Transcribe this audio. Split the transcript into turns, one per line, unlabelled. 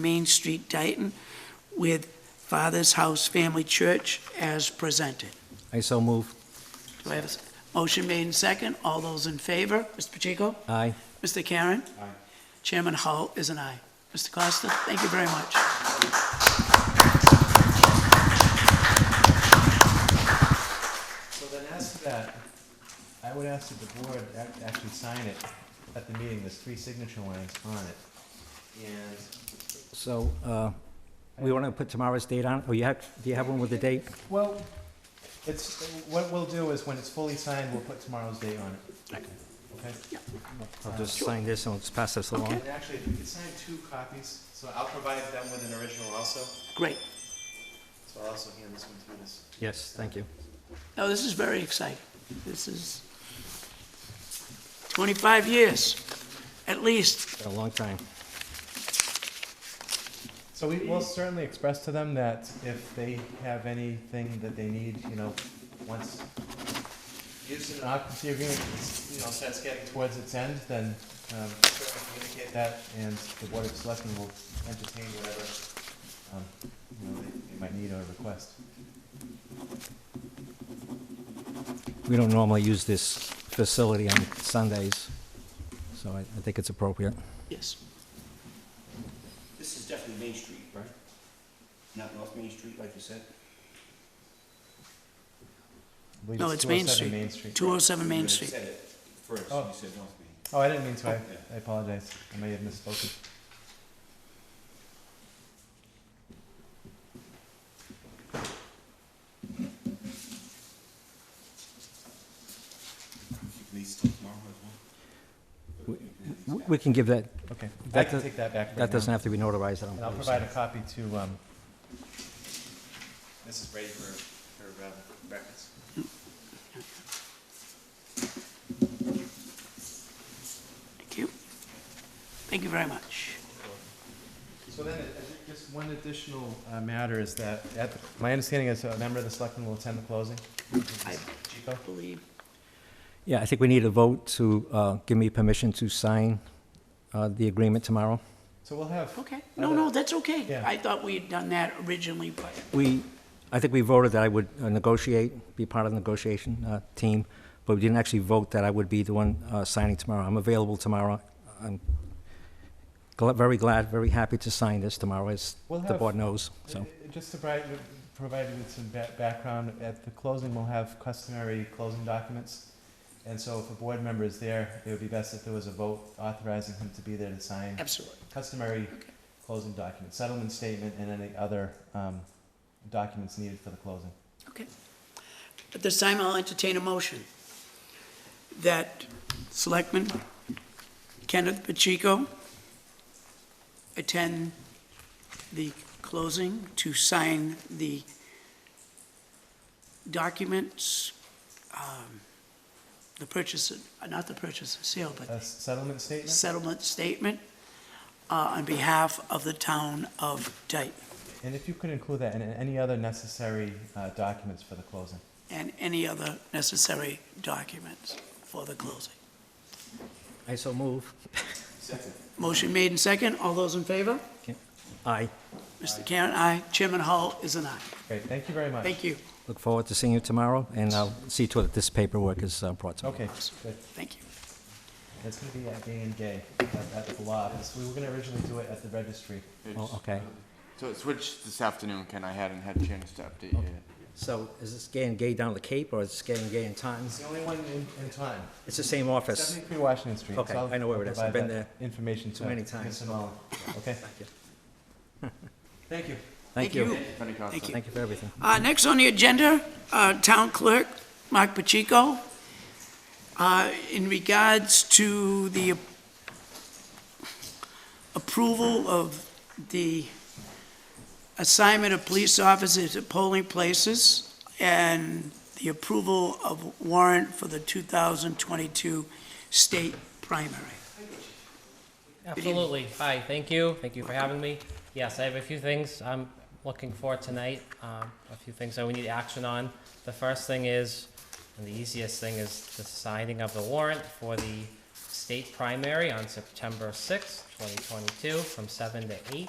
Main Street, Dayton, with Father's House Family Church as presented.
I so move.
Do I have a s- motion made in second? All those in favor? Mr. Pacheco?
Aye.
Mr. Karen? Aye. Chairman Hull is an aye. Mr. Costa, thank you very much.
So then as to that, I would ask that the board ac- actually sign it at the meeting, there's three signature lines on it. And,
So, uh, we want to put tomorrow's date on, or you have, do you have one with the date?
well, it's, what we'll do is when it's fully signed, we'll put tomorrow's date on it. Okay?
I'll just sign this and let's pass this along.
And actually, if we could sign two copies, so I'll provide them with an original also,
Great.
so I'll also hand this one to this.
Yes, thank you.
No, this is very exciting. This is 25 years, at least.
Been a long time.
So we will certainly express to them that if they have anything that they need, you know, once use and occupancy agreement, is, you know, starts getting towards its end, then, um, certainly communicate that, and the Board of Selectmen will entertain whatever, um, you know, they, they might need or request.
We don't normally use this facility on Sundays, so I, I think it's appropriate.
Yes.
This is definitely Main Street, right? Not North Main Street, like you said?
I believe
No, it's Main
207
Street.
Main Street.
207
You
Main
had
Street.
said it First, you
Oh.
said North Main.
Oh, I didn't mean to, I, I apologize, I may have misspoken.
You can lease till tomorrow as well.
We we can give that,
Okay, I
That
can
does-
take that back right
that
now.
doesn't have to be notarized, I
And I'll
don't believe
provide
so.
a copy to, um, Mrs. Brady for, for, uh, breakfast.
Thank you. Thank you very much.
So then, uh, uh, just one additional, uh, matter is that, at, the- my understanding is a member of the selectmen will attend the closing?
I
Chico?
believe
Yeah, I think we need a vote to, uh, give me permission to sign, uh, the agreement tomorrow.
So we'll have,
Okay, no, no, that's okay.
Yeah.
I thought we had done that originally, but,
We, I think we voted that I would uh, negotiate, be part of the negotiation uh, team, but we didn't actually vote that I would be the one uh, signing tomorrow. I'm available tomorrow. I'm gl- very glad, very happy to sign this tomorrow, as
We'll
the
have-
board knows,
uh,
so.
just to provide, provide you with some ba- background, at the closing, we'll have customary closing documents. And so if a board member is there, it would be best if there was a vote authorizing him to be there to sign
absolutely.
customary closing documents, settlement statement, and any other, um, documents needed for the closing.
At this time, I'll entertain a motion that Selectman Kenneth Pacheco attend the closing to sign the documents, um, the purchase, uh, not the purchase and sale, but
A s- settlement statement
settlement statement uh, on behalf of the town of Dayton
And if you could include that in any other necessary uh, documents for the closing.
and any other necessary documents for the closing.
I so move.
Second.
Motion made and second. All those in favor?
Aye.
Mr. Karen, aye. Chairman Hull is an aye.
Great, thank you very much.
Thank you.
Look forward to seeing you tomorrow, and I'll see to it that this paperwork is uh, brought to me.
Okay, good.
Thank you.
It's gonna be at Day and Gay at- at the lot. It's- We were gonna originally do it at the registry.
Oh, Okay.
So it switched this afternoon, Ken. I hadn't had a chance to update you yet.
So is this gay and gay down the Cape, or is this gay and gay in
It's
Times?
the only one in, in time.
It's the same office.
Seventy-three Washington Street. so
Okay,
I'll-
I know where
I'll
it is. I've
provide
been
that Information to.
too many
Mr.
times.
Mullen. Okay?
you.
Thank you.
Thank you.
Penny Costa.
Thank you.
Thank you for everything.
Uh, Next on the agenda, uh, Town Clerk Mark Pacheco. Uh, In regards to the approval of the assignment of police officers at polling places and the approval of warrant for the 2022 state primary.
Absolutely. Hi, thank you. Thank you for having me. Yes, I have a few things I'm looking for tonight, um, a few things that we need action on. The first thing is, and the easiest thing is the signing of the warrant for the state primary on September sixth, twenty twenty-two, from seven to eight.